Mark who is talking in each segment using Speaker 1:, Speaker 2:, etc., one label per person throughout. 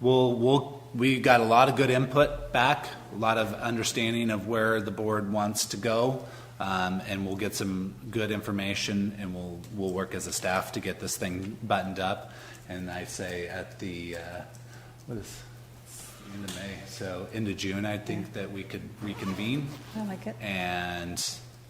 Speaker 1: we'll, we'll, we got a lot of good input back, a lot of understanding of where the board wants to go. Um, and we'll get some good information and we'll, we'll work as a staff to get this thing buttoned up. And I say at the, uh, what is, end of May, so end of June, I think that we could reconvene.
Speaker 2: I like it.
Speaker 1: And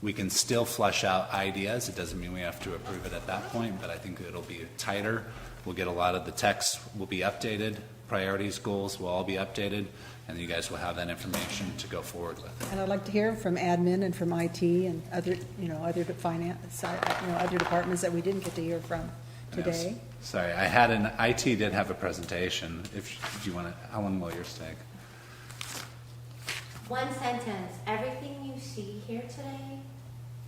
Speaker 1: we can still flush out ideas. It doesn't mean we have to approve it at that point, but I think it'll be tighter. We'll get a lot of the text will be updated, priorities, goals will all be updated, and you guys will have that information to go forward with.
Speaker 2: And I'd like to hear from admin and from IT and other, you know, other de- finance, uh, you know, other departments that we didn't get to hear from today.
Speaker 1: Sorry, I had an, IT did have a presentation. If, do you want to, how long will yours take?
Speaker 3: One sentence, everything you see here today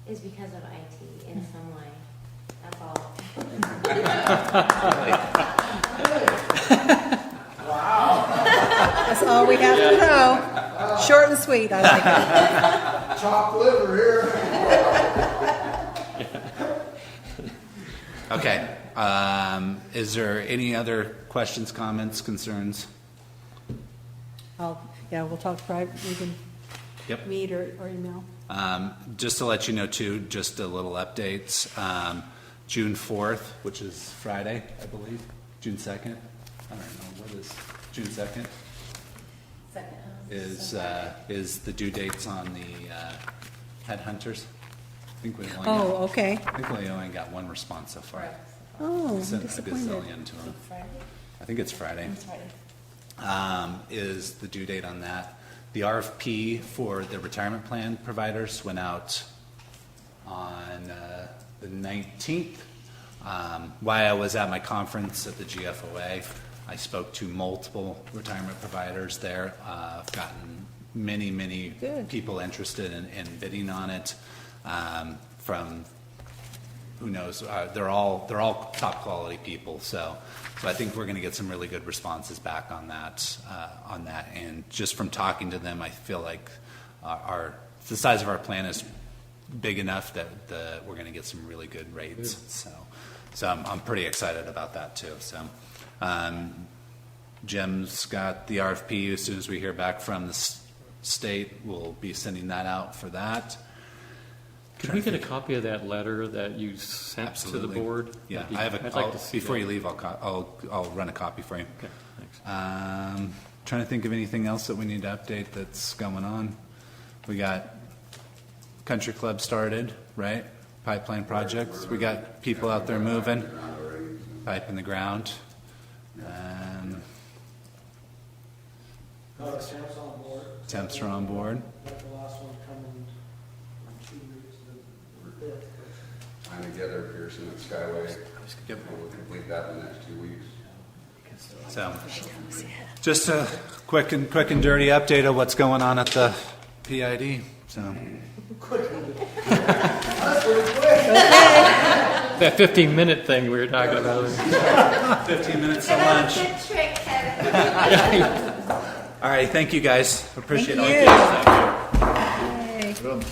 Speaker 3: is because of IT in some way. That's all.
Speaker 2: That's all we have to know. Short and sweet, I like it.
Speaker 4: chopped liver here.
Speaker 1: Okay, um, is there any other questions, comments, concerns?
Speaker 2: I'll, yeah, we'll talk private, we can
Speaker 1: Yep.
Speaker 2: meet or, or email.
Speaker 1: Um, Just to let you know too, just a little updates, um, June 4th, which is Friday, I believe, June 2nd, I don't know, what is, June 2nd? Is, uh, is the due dates on the uh, headhunters? I think we only,
Speaker 2: Oh,
Speaker 1: got-
Speaker 2: okay.
Speaker 1: I think we only got one response so far.
Speaker 2: Oh,
Speaker 1: We
Speaker 2: I'm
Speaker 1: Sent a
Speaker 2: disappointed.
Speaker 1: gazillion to them. I think it's Friday um, is the due date on that. The RFP for the retirement plan providers went out on uh, the 19th. Um, While I was at my conference at the GFOA, I spoke to multiple retirement providers there. Uh, I've gotten many, many
Speaker 2: Good.
Speaker 1: people interested in in bidding on it, um, from who knows? Uh, they're all they're all top quality people. So, so I think we're going to get some really good responses back on that uh, on that. And just from talking to them, I feel like our, our the size of our plan is big enough that the, we're going to get some really good rates. So, so I'm, I'm pretty excited about that too. So. Um, Jim's got the RFP. As soon as we hear back from the s- state, we'll be sending that out for that.
Speaker 5: Could we get a copy of that letter that you sent to the
Speaker 1: Absolutely.
Speaker 5: board?
Speaker 1: Yeah,
Speaker 5: That'd be-
Speaker 1: I have a,
Speaker 5: I'd like
Speaker 1: I'll-
Speaker 5: to see
Speaker 1: before
Speaker 5: that.
Speaker 1: you leave, I'll, co- I'll, I'll run a copy for you.
Speaker 5: Okay, thanks.
Speaker 1: Um, trying to think of anything else that we need to update that's going on. We got country club started, right? Pipeline projects, we got people out there moving, pipe in the ground. Um,
Speaker 6: No, the temps on board.
Speaker 1: temps are on board.
Speaker 6: Let the last one come in in two weeks, the fifth.
Speaker 4: Trying to get our Pearson at Skyway.
Speaker 1: Yep.
Speaker 4: And We'll complete that in the next two weeks.
Speaker 1: So, just a quick and, quick and dirty update of what's going on at the PID, so.
Speaker 5: That 15-minute thing we were talking about.
Speaker 1: Fifteen minutes to lunch.
Speaker 3: Good trick, Kevin.
Speaker 1: All right, thank you guys, appreciate all
Speaker 2: Thank
Speaker 1: you
Speaker 2: you.
Speaker 1: guys out there.
Speaker 2: Yay.